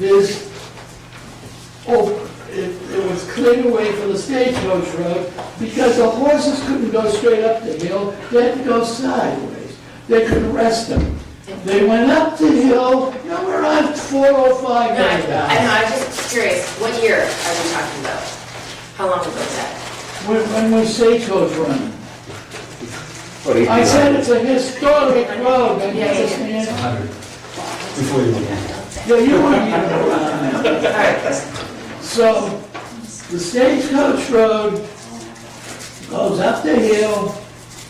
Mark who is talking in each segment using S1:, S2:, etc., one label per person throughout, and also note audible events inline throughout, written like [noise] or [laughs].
S1: is over. oh, It, it was cleared away from the stagecoach road because the horses couldn't go straight up the hill, they had to go sideways. They couldn't rest them. They went up the hill, now we're on four oh
S2: No,
S1: five
S2: I, I
S1: right now.
S2: know, I was just curious, what year are we talking about? How long ago was that?
S1: When, when was stagecoach running?
S3: Or eighty
S1: I said
S3: nine.
S1: it's a historic road, and you understand?
S3: Before you went in.
S1: Yeah, you weren't even around.
S2: All right,
S1: So, the Stagecoach Road goes up the hill,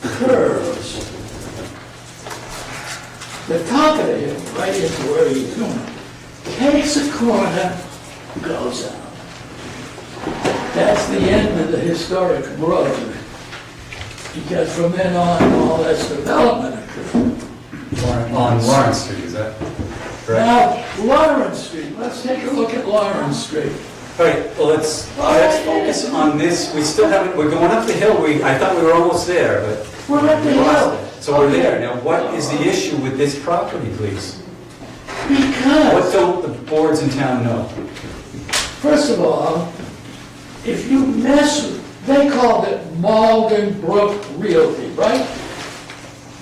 S1: curves. The top of the hill, right into where you're going, takes a corner, goes out. That's the end of the historic road, because from then on, all that's development occurred.
S4: On Lawrence Street, is that correct?
S1: Now, Lawrence Street, let's take a look at Lawrence Street.
S4: All right, well, let's, let's focus on this, we still haven't, we're going up the hill, we, I thought we were almost there, but
S1: We're at the
S4: we lost
S1: hill.
S4: it. So we're there, now what is the issue with this property, please?
S1: Because.
S4: What don't the boards in town know?
S1: First of all, if you mess, with- they called it Malden Brook Realty, right?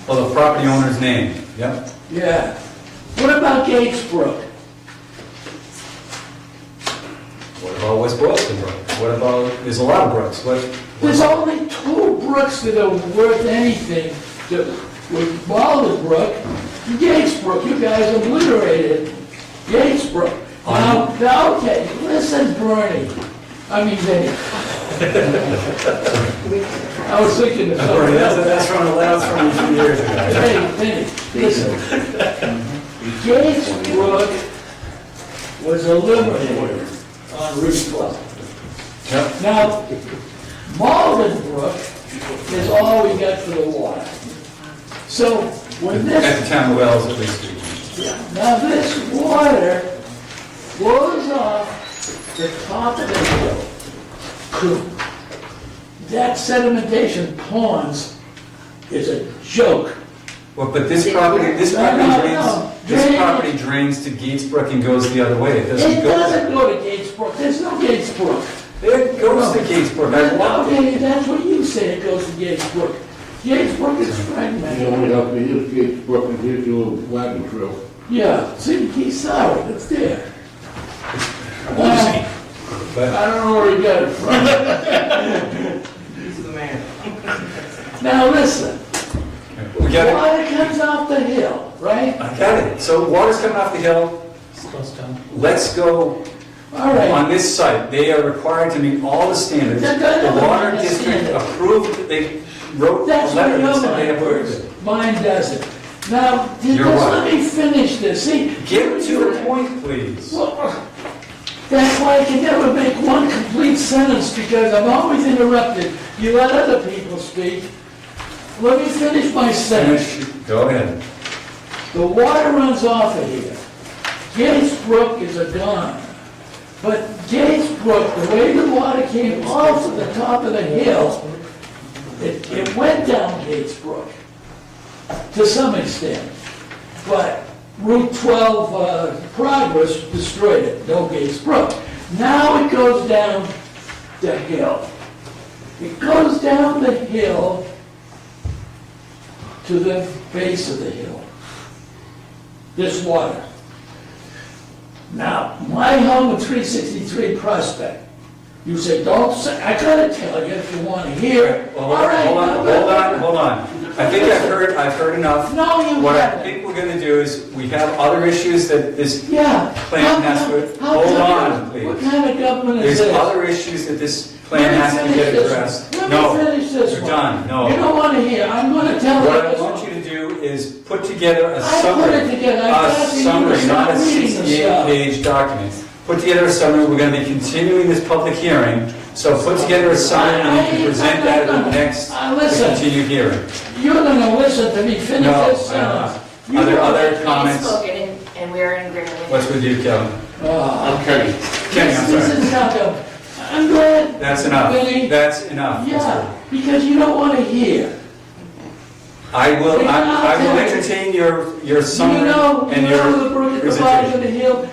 S4: Well, the property owner's name, yep.
S1: Yeah. What about Gates Brook?
S4: What about West Boylston Brook? What about, there's a lot of brooks, what?
S1: There's only two brooks that are worth anything, that with Malden Brook and Gates Brook. You guys obliterated Gates Brook. Now, now, okay, listen, Bernie, I mean, Dave. I was thinking of
S4: All right,
S1: something
S4: [laughs]
S1: else.
S4: that's, that's from, that's from a few years ago.
S1: Hey, hey, listen. Gates Brook was eliminated on Route 12.
S4: Yep.
S1: Now, Malden Brook is all we got for the water. So when
S4: At
S1: this,
S4: the town wells, at least.
S1: now this water flows off the top of the hill. That sedimentation ponds is a joke.
S4: Well, but this property, this
S1: No,
S4: property
S1: no, no.
S4: drains,
S1: Drain.
S4: this property drains to Gatesbrook and goes the other way, it doesn't
S1: It
S4: go.
S1: doesn't go to Gates Brook, there's no Gates Brook.
S4: It goes to Gatesbrook, I walked it.
S1: Okay, that's what you said, it goes to Gates Brook. Gates Brook is
S5: You
S1: fragmented.
S5: only have to use Gates Brook and here's your wagon trail.
S1: Yeah, see, he's sorry, it's there. Uh,
S4: But
S1: I don't know where he got it from. He's the man. Now, listen,
S4: we got it,
S1: water comes off the hill, right?
S4: I got it. So water's coming off the hill. Let's go
S1: All
S4: on
S1: right,
S4: this site. They are required to meet all the standards.
S1: They're gonna
S4: The water
S1: meet the
S4: district
S1: standards.
S4: approved, they wrote a
S1: that's what
S4: letter
S1: your
S4: that said they
S1: mind
S4: approved
S1: works,
S4: it.
S1: mine doesn't. Now, just
S4: You're right.
S1: let me finish this, see?
S4: Get to the point, please.
S1: Well, That's why I can never make one complete sentence, because I'm always interrupted. You let other people speak. Let me finish my sentence.
S4: Finish. Go ahead.
S1: The water runs off of here. Gates Brook is a don. But Gates Brook, the way the water came off of the top of the hill, it, it went down Gates Brook to some extent. But Route 12 uh, Progress destroyed it, no Gates Brook. Now it goes down the hill. It goes down the hill to the base of the hill this water. Now, my home at 363 Prospect, you say, don't say, I gotta tell you if you wanna hear it.
S4: Well,
S1: All right.
S4: Hold on,
S1: no,
S4: hold
S1: but-
S4: on, hold on. I think I've heard, I've heard enough.
S1: No, you
S4: What I
S1: haven't.
S4: think we're gonna do is, we have other issues that this
S1: Yeah.
S4: Plan
S1: How
S4: has
S1: come-
S4: to-
S1: how
S4: hold
S1: come-
S4: on, please.
S1: What kind of government is
S4: There's
S1: this?
S4: other issues that this plan
S1: Let me
S4: has to
S1: finish
S4: get
S1: this
S4: addressed.
S1: one.
S4: No,
S1: Let me finish this
S4: you're
S1: one.
S4: done,
S1: You
S4: no.
S1: don't wanna hear, I'm gonna tell you.
S4: What I
S1: this
S4: want
S1: one.
S4: you to do is put together a
S1: I put
S4: summary.
S1: it together. I
S4: A
S1: thought you were
S4: summary, not a
S1: not reading the stuff.
S4: 68-page document. Put together a summary, we're gonna be continuing this public hearing, so put together a summary and you
S1: I-
S4: can present
S1: I'm not
S4: that at the
S1: gonna-
S4: next
S1: Uh, listen.
S4: continued hearing.
S1: You're gonna listen to me finish
S4: No,
S1: this
S4: I'm not.
S1: sentence.
S4: Are there other
S2: we've
S4: comments?
S2: spoken and- and we're in agreement
S4: What's
S2: with
S4: with you, Kevin?
S1: Ah,
S5: I'm Kenny.
S4: Kenny,
S1: this-
S4: I'm
S1: This
S4: sorry.
S1: is not gonna, I'm glad.
S4: That's enough,
S1: Vinny.
S4: that's enough.
S1: Yeah, because you don't want to hear.
S4: I will,
S1: [laughs]
S4: I I will entertain your, your
S1: You
S4: summary
S1: know, you know
S4: and
S1: the
S4: your
S1: brook at the
S4: presentation.
S1: bottom of the hill,